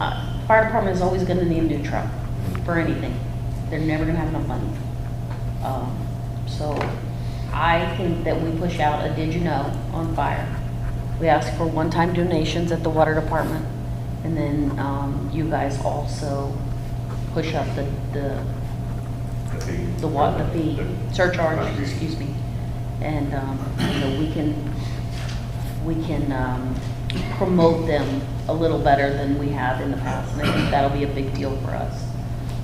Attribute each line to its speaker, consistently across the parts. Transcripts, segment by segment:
Speaker 1: uh, fire department is always gonna need a new truck for anything. They're never gonna have enough money. Um, So I think that we push out a did you know on fire. We ask for one-time donations at the water department, and then um, you guys also push up the, the,
Speaker 2: The fee.
Speaker 1: the what, the fee, surcharge,
Speaker 2: Contribution.
Speaker 1: excuse me. And, um, you know, we can, we can um, promote them a little better than we have in the past. And I think that'll be a big deal for us.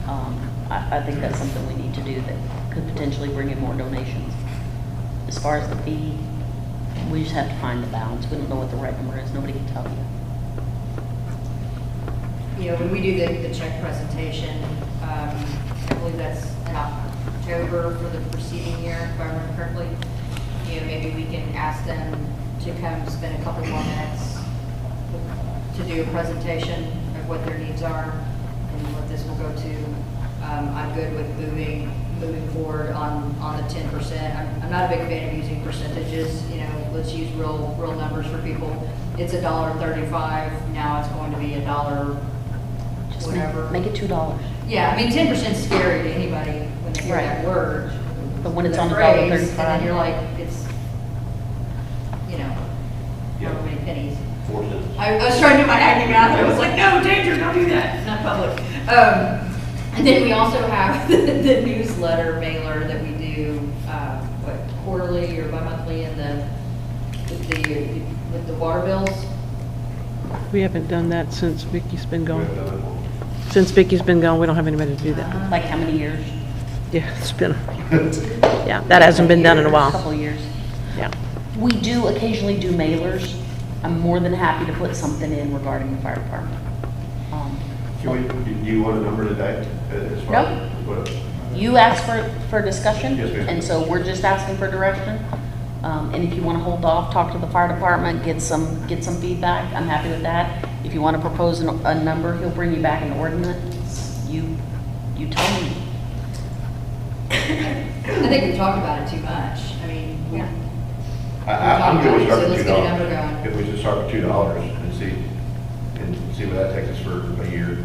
Speaker 1: Um, I, I think that's something we need to do that could potentially bring in more donations. As far as the fee, we just have to find the balance. We don't know what the right number is. Nobody can tell you.
Speaker 3: You know, when we do the, the check presentation, um, I believe that's in October for the preceding year, if I remember correctly. You know, maybe we can ask them to come spend a couple more minutes to do a presentation of what their needs are and what this will go to. Um, I'm good with moving, moving forward on, on the ten percent. I'm, I'm not a big fan of using percentages, you know, let's use real, real numbers for people. It's a dollar thirty-five, now it's going to be a dollar
Speaker 1: Just make-
Speaker 3: whatever.
Speaker 1: Make it two dollars.
Speaker 3: Yeah, I mean, ten percent's scary to anybody when they hear that
Speaker 1: Right.
Speaker 3: word.
Speaker 1: But when it's
Speaker 3: that
Speaker 1: on a dollar
Speaker 3: phrase, And
Speaker 1: $1.35.
Speaker 3: then you're like, it's, you know, however many pennies.
Speaker 2: Four cents.
Speaker 3: I, I was trying to do my acting math, I was like, no, danger, don't do that, not public. Um, and then we also have the newsletter mailer that we do, uh, what, quarterly or bi-monthly in the, with the, with the water bills.
Speaker 4: We haven't done that since Vicky's been
Speaker 2: We
Speaker 4: gone.
Speaker 2: haven't done that one.
Speaker 4: Since Vicky's been gone, we don't have anybody to do that.
Speaker 1: Like how many years?
Speaker 4: Yeah, it's been, yeah, that hasn't been done in a while.
Speaker 1: Couple of years.
Speaker 4: Yeah.
Speaker 1: We do occasionally do mailers. I'm more than happy to put something in regarding the fire department. Um,
Speaker 2: Can we, do you want a number today? uh, as far as- what-
Speaker 1: You asked for, for discussion?
Speaker 2: Yes, ma'am.
Speaker 1: And so we're just asking for direction. Um, And if you want to hold off, talk to the fire department, get some, get some feedback, I'm happy with that. If you want to propose a, a number, he'll bring you back an ordinance. You, you tell me.
Speaker 3: I think we talked about it too much, I mean, we,
Speaker 2: I, I- I'm good with starting
Speaker 3: So
Speaker 2: with two
Speaker 3: let's get a
Speaker 2: dollars.
Speaker 3: number going.
Speaker 2: If we just start with two dollars and see, and see where that takes us for a year.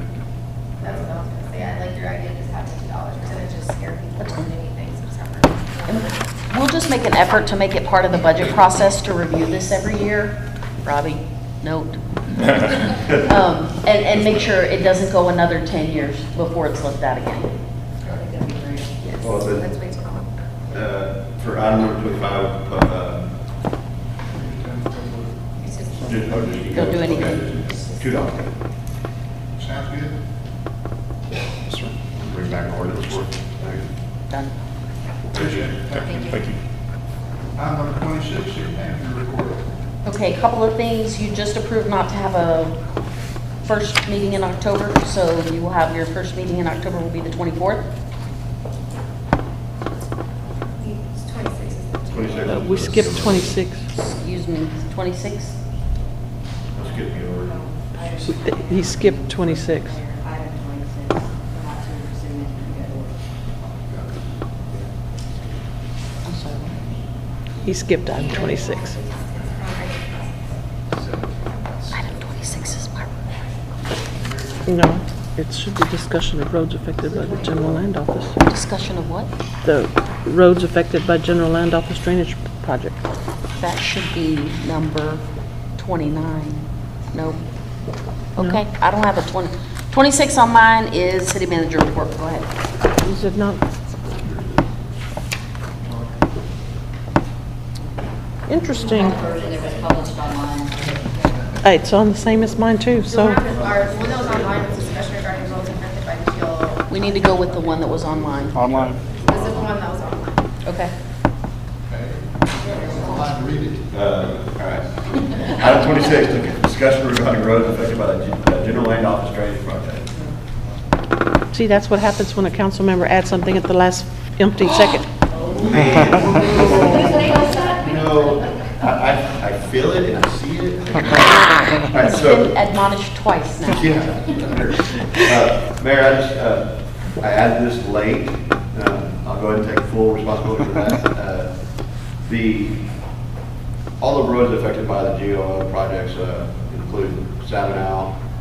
Speaker 5: That's what I was gonna say, I like your idea, just having two dollars percentage, just scare people more than anything, so it's
Speaker 1: And
Speaker 5: not-
Speaker 1: We'll just make an effort to make it part of the budget process to review this every year. Robbie, note.
Speaker 2: Uh,
Speaker 1: Um, And, and make sure it doesn't go another 10 years before it's looked at again.
Speaker 3: I think that'd be great.
Speaker 5: Yes,
Speaker 2: Well, then-
Speaker 5: That's way too long.
Speaker 1: Oh.
Speaker 2: Uh, For item number twenty-five, uh,
Speaker 5: It's just.
Speaker 2: just- oh, just-
Speaker 1: Don't do anything.
Speaker 2: okay, Two dollars.
Speaker 6: Sounds good.
Speaker 2: Bring back an ordinance for it.
Speaker 1: Done.
Speaker 2: Appreciate it.
Speaker 3: Thank you.
Speaker 6: Item number twenty-six, city manager report.
Speaker 1: Okay, a couple of things. You just approved not to have a first meeting in October, so you will have your first meeting in October will be the 24th.
Speaker 5: Twenty-six is the.
Speaker 2: 26.
Speaker 4: Uh, We skipped 26.
Speaker 1: Excuse me, 26th.
Speaker 2: Let's get me over.
Speaker 4: He- He skipped 26.
Speaker 3: Item twenty-six, we're not to pursue it, we gotta work.
Speaker 1: I'm sorry.
Speaker 4: He skipped item 26.
Speaker 1: Item 26 is my
Speaker 4: No, it should be discussion of roads affected by the general land office.
Speaker 1: discussion of what?
Speaker 4: The roads affected by general land office drainage project.
Speaker 1: That should be number 29. Nope. Okay, I don't have a 20, 26 on mine is city manager report. Go ahead.
Speaker 4: You said not. Interesting.
Speaker 3: The version that was published online.
Speaker 4: Hey, Uh, It's on the same as mine too,
Speaker 5: So
Speaker 4: so.
Speaker 5: one that was ours, the one that was online was discussion regarding roles affected by fuel.
Speaker 1: We need to go with the one that was online.
Speaker 7: Online.
Speaker 5: This is the one that was online.
Speaker 1: Okay.
Speaker 6: Okay. I'd like to read it.
Speaker 2: Uh, all right. Item twenty-six, the discussion regarding roads affected by the gen- uh, general land office drainage project.
Speaker 4: See, that's what happens when a council member adds something at the last empty second.
Speaker 2: No, I, I, I feel it and I see it. All right, so.
Speaker 1: Been admonished twice now.
Speaker 2: Yeah. Uh, Mayor, I just, uh, I added this late, um, I'll go ahead and take full responsibility for that. Uh, The, all the roads affected by the GOL projects uh, include Sabinow,